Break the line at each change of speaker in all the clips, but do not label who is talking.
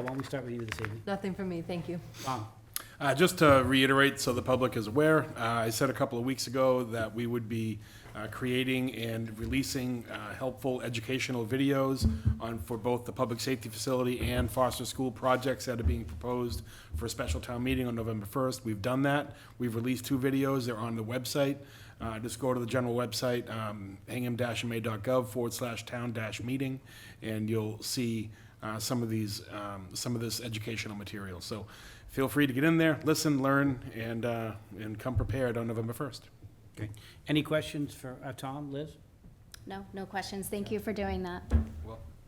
Why don't we start with you this evening?
Nothing for me, thank you.
Tom?
Uh, Just to reiterate, so the public is aware, uh, I said a couple of weeks ago that we would be uh, creating and releasing uh, helpful educational videos on, for both the public safety facility and foster school projects that are being proposed for a special town meeting on November 1st. We've done that. We've released two videos. They're on the website. Uh, Just go to the general website, um, hingham-ma.gov forward slash town dash meeting, and you'll see uh, some of these, um, some of this educational material. So feel free to get in there, listen, learn, and, uh, and come prepared on November 1st.
Okay. Any questions for uh, Tom, Liz?
No, no questions. Thank you for doing that.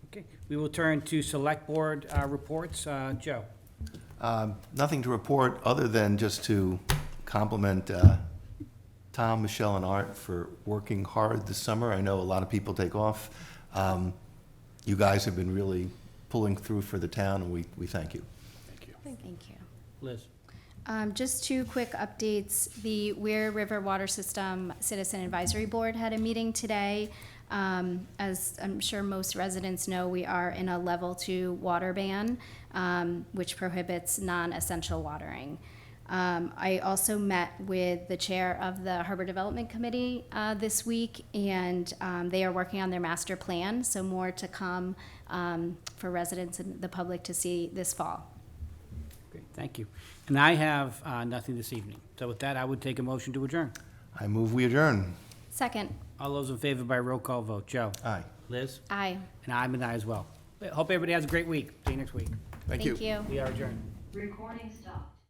Okay, we will turn to select board uh, reports. Uh, Joe?
Um, Nothing to report, other than just to compliment uh, Tom, Michelle, and Art for working hard this summer. I know a lot of people take off. Um, You guys have been really pulling through for the town, and we we thank you.
Thank you.
Thank you.
Liz?
Um, just two quick updates. The Weir River Water System Citizen Advisory Board had a meeting today. Um, as I'm sure most residents know, we are in a level two water ban, um, which prohibits non-essential watering. Um, I also met with the chair of the Harbor Development Committee uh, this week, and um, they are working on their master plan, so more to come um, for residents and the public to see this fall.
Great, thank you. And I have uh, nothing this evening. So with that, I would take a motion to adjourn.
I move we adjourn.
Second,
All those in favor by roll call vote. Joe?
Aye.
Liz?
aye.
And I'm an aye as well. Hope everybody has a great week. See you next week.
Thank you.
We are adjourned.
Recording stopped.